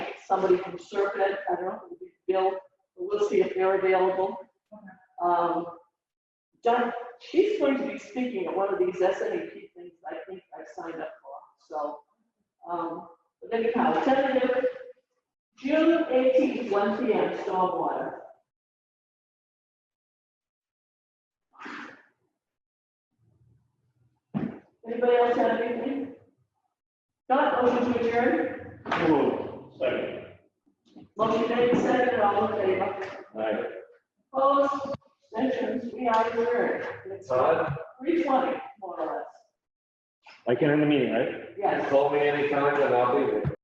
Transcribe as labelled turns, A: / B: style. A: somebody from Serpent, I don't know, Bill, we'll see if they're available. Um, John, she's going to be speaking at one of these SNEP things I think I signed up for, so. um, But anyhow, tentative, June eighteenth, one P M, stormwater. Anybody else have anything? Not motion to adjourn,
B: Move. Second.
A: motion made, seconded, all in favor.
B: Aye.
A: Opposed, extensions, we are adjourned. It's
C: Todd,
A: three twenty, more or
B: I can end the meeting, right?
A: less, yes.
C: call me anytime and I'll be there.